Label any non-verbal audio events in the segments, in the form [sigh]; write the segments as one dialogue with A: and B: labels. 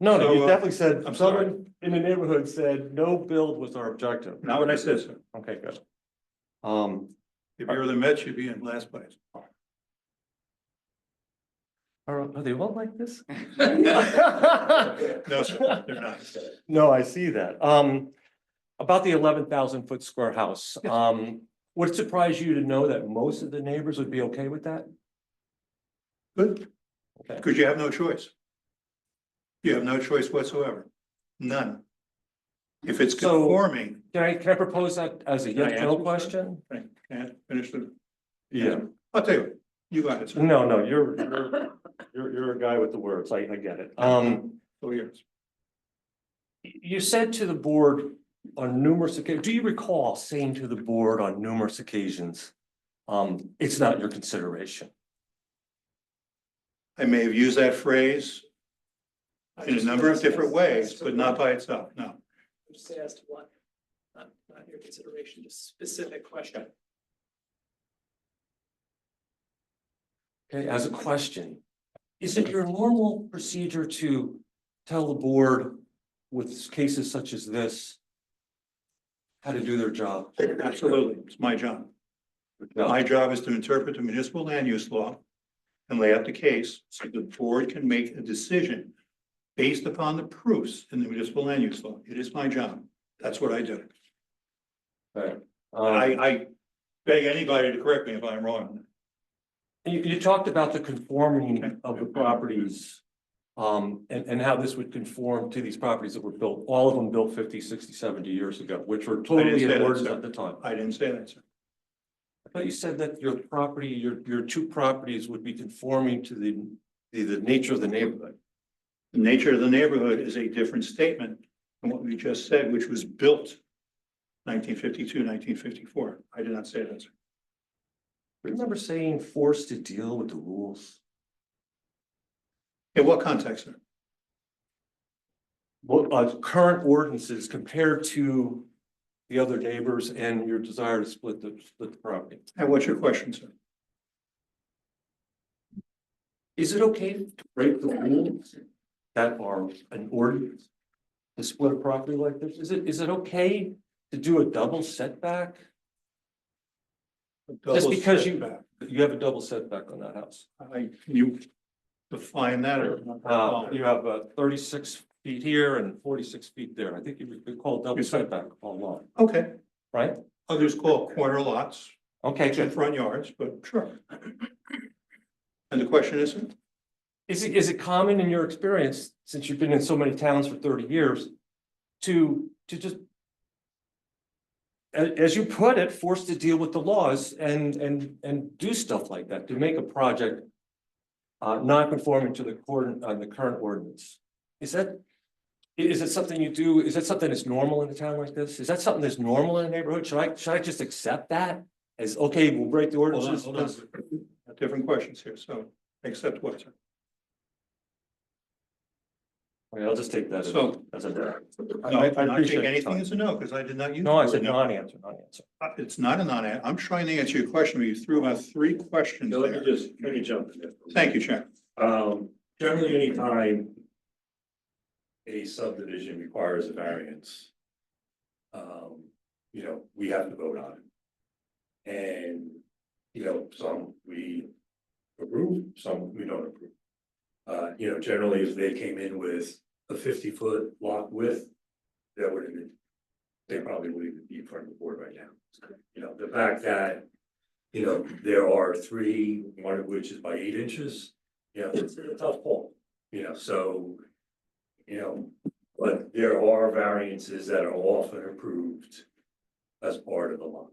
A: No, no,
B: So,
A: you
B: uh,
A: definitely said,
B: I'm sorry.
A: someone in the neighborhood said, no build was our objective.
B: Not what I said, sir.
A: Okay, good. Um,
B: If you're the Mets, you'd be in last place.
A: are, are they all
B: [laughs]
A: like this?
B: No, sir, they're not.
A: No, I see that. Um, about the eleven thousand foot square house, um, would it surprise you to know that most of the neighbors would be okay with that?
B: Good.
A: [laughs] Okay.
B: Because you have no choice. You have no choice whatsoever. None. If it's
A: So-
B: conforming,
A: Can I, can I propose that as a
B: Can I
A: yes no
B: answer, sir?
A: question?
B: Frank, can I finish the? I'll tell you, what, you got it, sir.
A: No, no, you're, you're, you're, you're a guy with the words. I, I get it.
B: [laughs]
A: Um,
B: Four years.
A: You said to the board on numerous occasions, do you recall saying to the board on numerous occasions? Um, it's not your consideration.
B: I may have used that phrase in a number of different ways, but not by itself, no.
C: Just asked what, not, not your consideration, just specific question.
A: Okay, as a question, is it your normal procedure to tell the board with cases such as this? How to do their job?
B: Absolutely, it's my job. My job is to interpret the municipal land use law and lay out the case so the board can make a decision based upon the proofs in the municipal land use law. It is my job. That's what I do.
A: Um,
B: I, I beg anybody to correct me if I'm wrong.
A: You, you talked about the conforming of the properties. Um, and, and how this would conform to these properties that were built, all of them built 50, 60, 70 years ago, which were totally
B: say
A: in
B: that,
A: orders
B: sir.
A: at the time.
B: I didn't say that, sir.
A: But you said that your property, your, your two properties would be conforming to the, the, the nature of the neighborhood.
B: The nature of the neighborhood is a different statement than what we just said, which was built 1952, 1954. I did not say that, sir.
A: Remember saying forced to deal with the rules?
B: In what context, sir?
A: What, uh, current ordinances compared to the other neighbors and your desire to split the, split the property?
B: And what's your question, sir?
A: Is it okay to break the rules that are an ordinance? To split a property like this, is it, is it okay to do a double setback? Just because you-
B: Double setback.
A: You have a double setback on that house.
B: I, can you define that or?
A: Uh,
B: Oh.
A: you have uh, thirty-six feet here and forty-six feet there. I think you could call double
B: Yes, sir.
A: setback all along,
B: Okay,
A: right?
B: others call it corner lots,
A: Okay,
B: and
A: good.
B: front yards, but sure. And the question is,
A: Is it, is it common in your experience, since you've been in so many towns for thirty years, to, to just a- as, you put it, forced to deal with the laws and, and, and do stuff like that, to make a project uh, non-conforming to the current, uh, the current ordinance? Is that, i- is it something you do, is that something that's normal in a town like this? Is that something that's normal in a neighborhood? Should I, should I just accept that? As, okay, we'll break the
B: hold on,
A: ordinances?
B: hold on. Different questions here, so accept what, sir?
A: Okay, I'll just take that as,
B: So-
A: as a. I-
B: No,
A: I
B: I'm not
A: appreciate your
B: taking anything
A: time.
B: as a no, because I did not use.
A: No, I
B: the word
A: said non-answer, non-answer.
B: Uh, It's not a non, I'm trying to answer your question, but you threw out three questions
D: Now, let me
B: there.
D: just, let me jump in there.
B: Thank you, Chair.
D: Um, generally, anytime a subdivision requires a variance, um, you know, we have to vote on it. And, you know, some we approve, some we don't approve. Uh, you know, generally, if they came in with a fifty-foot lot width, that would have been, they probably wouldn't even be in front of the board right now. You know, the fact that, you know, there are three, one of which is by eight inches, you know, it's a tough call, you know, so, you know, but there are variances that are often approved as part of the law.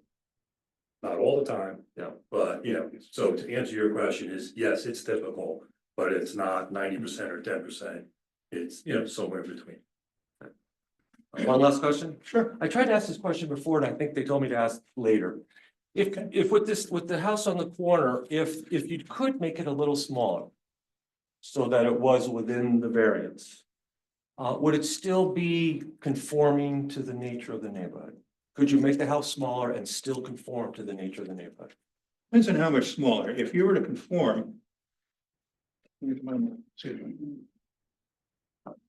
D: Not all the time.
A: Yeah.
D: But, you know, so to answer your question is, yes, it's difficult, but it's not ninety percent or ten percent. It's, you know, somewhere in between.
A: One last question.
B: Sure.
A: I tried to ask this question before and I think they told me to ask later. If, if with this, with the house on the corner, if, if you could make it a little smaller so that it was within the variance, uh, would it still be conforming to the nature of the neighborhood? Could you make the house smaller and still conform to the nature of the neighborhood?
B: Depends on how much smaller. If you were to conform. Excuse me.